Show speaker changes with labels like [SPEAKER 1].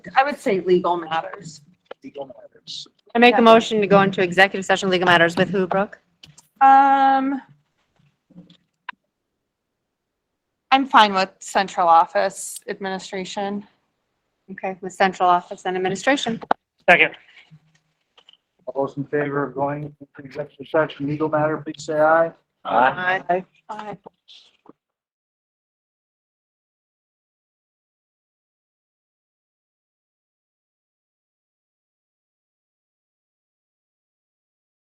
[SPEAKER 1] I would say legal matters.
[SPEAKER 2] legal matters.
[SPEAKER 3] I make a motion to go into executive session legal matters with who, Brooke?
[SPEAKER 1] Um, I'm fine with central office administration.
[SPEAKER 3] Okay, with central office and administration.
[SPEAKER 2] Second. All those in favor of going into executive session, legal matter, please say aye.
[SPEAKER 3] Aye.
[SPEAKER 1] I